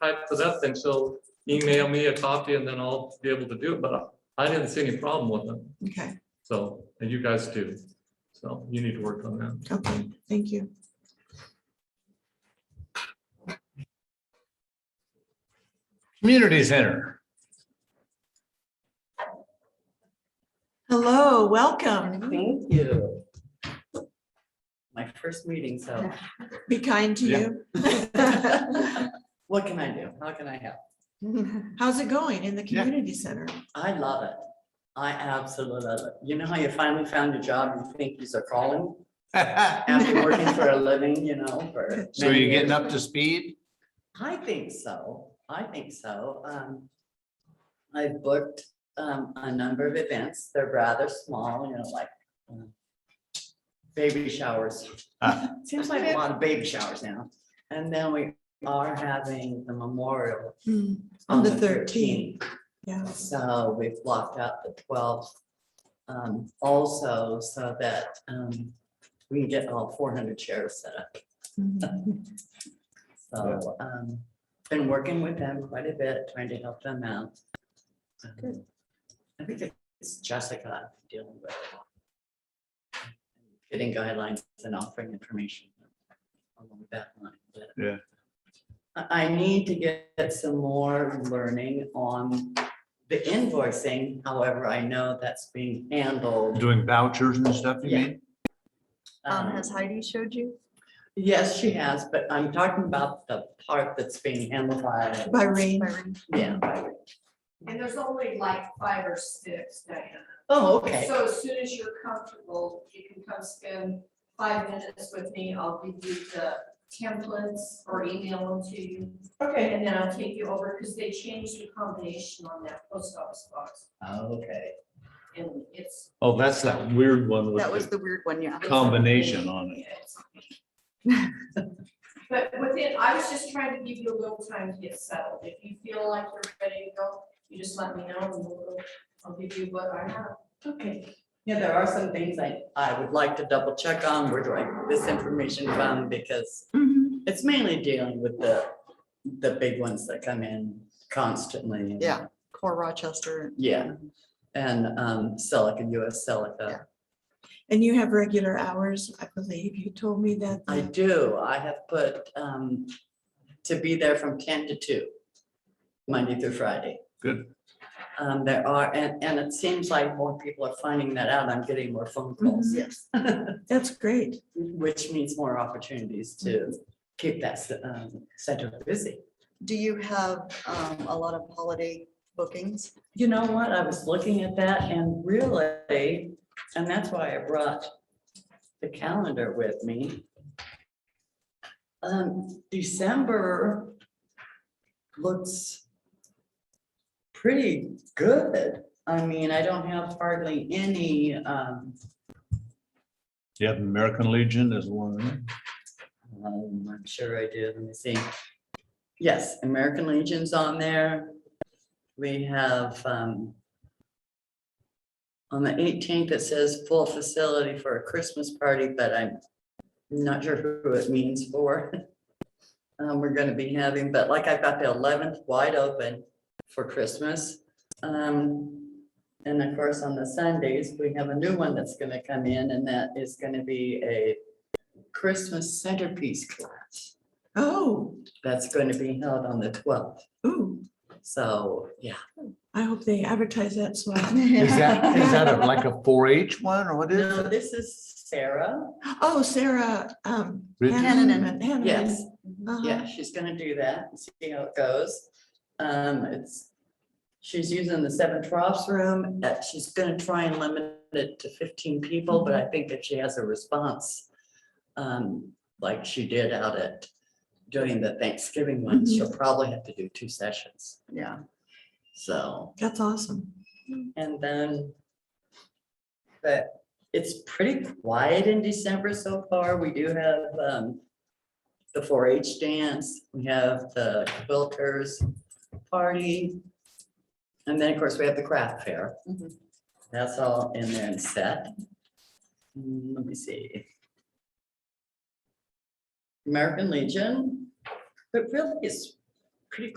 types it up, then she'll email me a copy and then I'll be able to do it, but I didn't see any problem with them. Okay, So, and you guys do. So you need to work on that. okay, thank you. Community Center. Hello, welcome. Thank you. My first meeting, so Be kind to you. what can I do? How can I help? How's it going in the Yeah. community center? I love it. I absolutely love it. You know how you finally found a job you think is a calling after working for a living, you know, for. So many you're getting years? up to speed? I think so. I think so. Um, I've booked, um, a number of events. They're rather small, you know, like um, baby showers. Ah. Seems like a lot of baby showers now. And then we are having the memorial. Hmm, On the thirteenth, 13th. yeah. So we've blocked out the twelfth. Um, also so that, um, we can get all four hundred chairs set up. Mhm. So, um, been working with them quite a bit, trying to help them out. Um, I think it's Jessica dealing with. it. Getting guidelines and offering information along that line, but. Yeah. I, I need to get some more learning on the invoicing, however, I know that's being handled. Doing vouchers and stuff, you Yeah. mean? Um, um, has Heidi showed you? Yes, she has, but I'm talking about the part that's being handled by, By rain, Byron? yeah. And there's only like five or six, Diana. Oh, okay. So as soon as you're comfortable, you can come spend five minutes with me. I'll give you the templates or email them to you. Okay. And then I'll take you over because they changed the combination on that post office box Okay. and it's. Oh, that's that weird one That was with the the weird one, yeah. combination on it. it's- But within, I was just trying to give you a little time to get settled. If you feel like you're ready to go, you just let me know and we'll, I'll give you what I have. Okay. Yeah, there are some things I, I would like to double check on, where do I get this information from, because Mhm. it's mainly dealing with the, the big ones that come in constantly. Yeah. Core Rochester. Yeah, and, um, Celica, US Celica. and you have regular hours, I believe. You told me that. I the- do, I have put, um, to be there from ten to two, Monday through Friday. Good. Um, there are, and, and it seems like more people are finding that out, I'm getting more phone calls. Yes. That's great. which means more opportunities to keep that s- um, center busy. Do you have um, a lot of holiday bookings? You know what, I was looking at that and really, and that's why I brought the calendar with me. Um, December looks pretty good. I mean, I don't have hardly any, um, You have American Legion as one. Um, I'm sure I do, let me see. Yes, American Legion's on there. We have, um, on the eighteenth, it says full facility for a Christmas party, but I'm not sure who it means for. Um, we're gonna be having, but like I've got the eleventh wide open for Christmas. Um, and of course, on the Sundays, we have a new one that's gonna come in, and that is gonna be a Christmas centerpiece class Oh, that's going to be held on the twelfth. ooh, So, yeah. I hope they advertise that so I Is that, is that a- like a four H one or what is No, it? this is Sarah. Oh, Sarah, um. Richards? Hanneman- Hanneman. Yes, Uh-huh. yeah, she's going to do that and see how it goes. Um, it's, she's using the seven troughs room. uh, She's going to try and limit it to fifteen people, but I think if she has a response, um, like she did out at doing the Thanksgiving one, she'll probably have to do two sessions. Yeah. So That's awesome. And then. But it's pretty quiet in December so far. We do have um. The four H dance, we have the quilters party. And then, of course, we have the craft fair. Mhm. That's all in there and set. Mm, Let me see. American Legion, but really it's